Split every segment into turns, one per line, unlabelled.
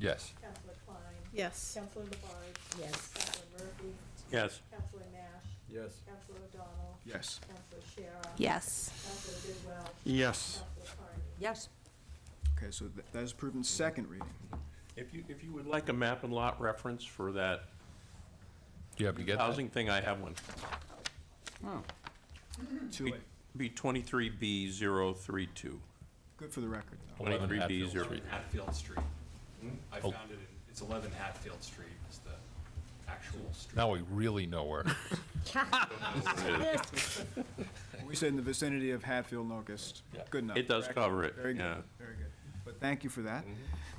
Yes.
Counselor Klein.
Yes.
Counselor Labarge.
Yes.
Counselor Murphy.
Yes.
Counselor Nash.
Yes.
Counselor O'Donnell.
Yes.
Counselor Shara.
Yes.
Counselor Bidwell.
Yes.
Counselor Carney.
Yes.
Okay, so tha- that is approved in second reading.
If you, if you would like a map and lot reference for that
Do you have to get that? Oh.
housing thing, I have one.
Too late.
Be twenty-three B zero three two.
Good for the record, though.
11
Twenty-three B
Hatfield
zero.
Street.
Hatfield Street. I
Oh.
found it, in- it's 11 Hatfield Street is the actual street.
Now we really know where.
We said in the vicinity of Hatfield and Locust. Good enough.
It does cover it,
Very
yeah. Mm-hmm.
good, very good. But thank you for that.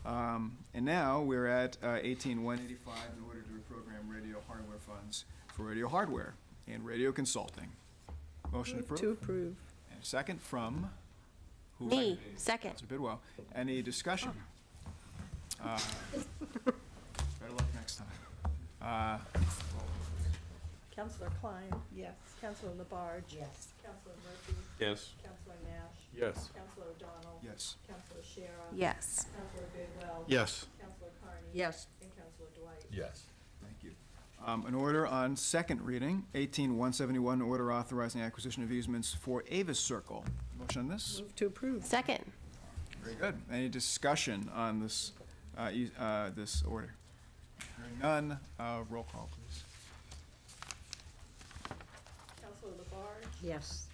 Um, And now, we're at uh, 18185 in order to reprogram radio hardware funds for radio hardware and radio consulting. Motion approved.
To approve.
And a second from? who?
Me, second.
Counselor Bidwell. Any discussion? Uh, Better luck next time. Uh,
Counselor Klein.
Yes.
Counselor Labarge.
Yes.
Counselor Murphy.
Yes.
Counselor Nash.
Yes.
Counselor O'Donnell.
Yes.
Counselor Shara.
Yes.
Counselor Bidwell.
Yes.
Counselor Carney.
Yes.
And Counselor Dwight.
Yes.
Thank you. Um, An order on second reading, 18171, order authorizing acquisition of easements for Avis Circle. Motion on this?
Move to approve.
Second.
Very good. Any discussion on this, uh, eas- uh, this order? Hearing none, uh, roll call, please.
Counselor Labarge.
Yes.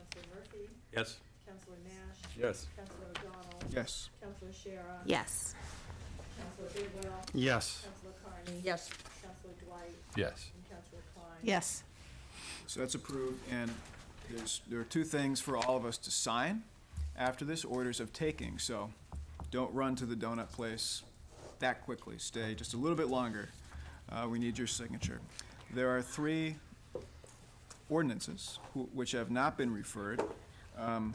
Counselor Murphy.
Yes.
Counselor Nash.
Yes.
Counselor O'Donnell.
Yes.
Counselor Shara.
Yes.
Counselor Bidwell.
Yes.
Counselor Carney.
Yes.
Counselor Dwight.
Yes.
And Counselor Klein.
Yes.
So that's approved, and there's, there are two things for all of us to sign after this, orders of taking, so don't run to the donut place that quickly, stay just a little bit longer. Uh, we need your signature. There are three ordinances who- which have not been referred. Um,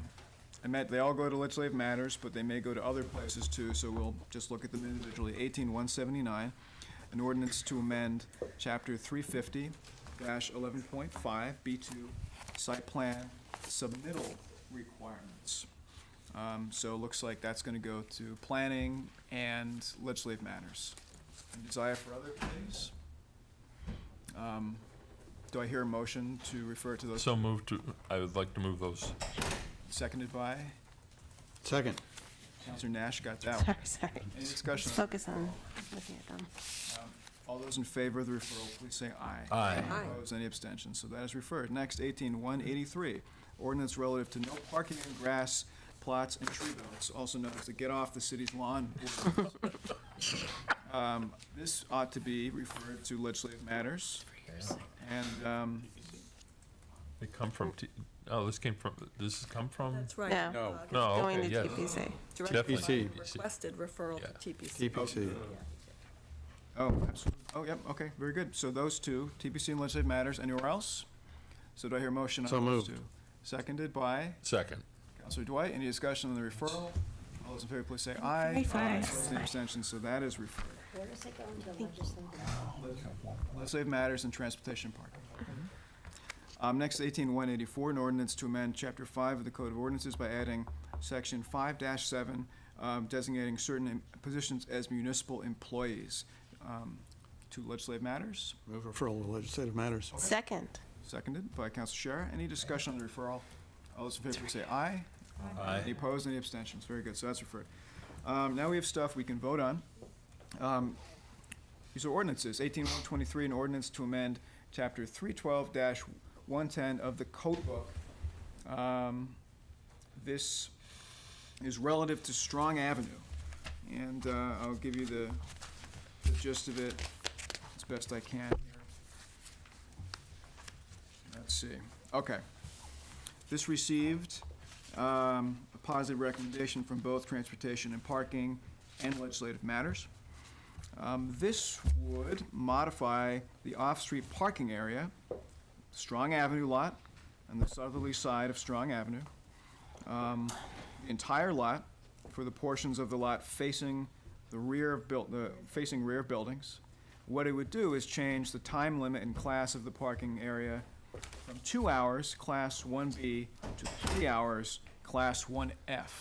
I meant, they all go to legislative matters, but they may go to other places too, so we'll just look at them individually. Eighteen one seventy-nine, an ordinance to amend chapter three fifty eleven point five, B two, site plan submittal requirements. Um, so it looks like that's gonna go to planning and legislative matters. Any Desire for other, please? Um, Do I hear a motion to refer to those,
So move to, I would like to move those.
seconded by?
Second.
Counselor Nash got that one.
Sorry, sorry.
Any
Just
discussion?
focus on looking at them.
All those in favor of the referral, please say aye.
Aye.
Aye.
Opposed, any abstentions? So that is referred. Next, 18183, ordinance relative to no parking on grass plots and tree belts, also known as the get off the city's lawn. ordinance. Um, This ought to be referred to legislative matters. And um,
They come from, T- oh, this came from, this has come from?
That's right.
No.
No.
Uh,
No, Oh,
Going
okay,
to
yes.
TPC.
Directed by
TPC.
the requested referral to TPC.
TPC.
Oh, absolutely. Oh, yep, okay, very good. So those two, TPC and legislative matters, anywhere else? So do I hear a motion on
So
those two?
moved.
Seconded by
Second.
Counselor Dwight. Any discussion on the referral? All those in favor, please say aye.
Aye. Aye.
Opposed, Any abstentions? So that is referred.
Where does it go into legislative?
Legislative matters and transportation parking. Um, next, eighteen one eighty-four, an ordinance to amend chapter five of the Code of Ordinances by adding section five seven, um, designating certain em- positions as municipal employees. Um, to legislative matters.
Move referral to legislative matters.
Second.
Seconded by Council Shara. Any discussion on the referral? All those in favor please say aye.
Aye.
Any opposed, any abstentions? Very good, so that's referred. Um, Now we have stuff we can vote on. Um, These are ordinances. 18123, an ordinance to amend Chapter 312-110 of the Code Book. Um, This is relative to Strong Avenue, and uh, I'll give you the the gist of it as best I can here. Let's see, okay. This received um, a positive recommendation from both Transportation and Parking and Legislative Matters. Um, This would modify the off-street parking area, Strong Avenue lot, on the southerly side of Strong Avenue, um, the entire lot for the portions of the lot facing the rear of buil, the, facing rear of buildings. What it would do is change the time limit and class of the parking area from two hours, Class 1B, to three hours, Class 1F.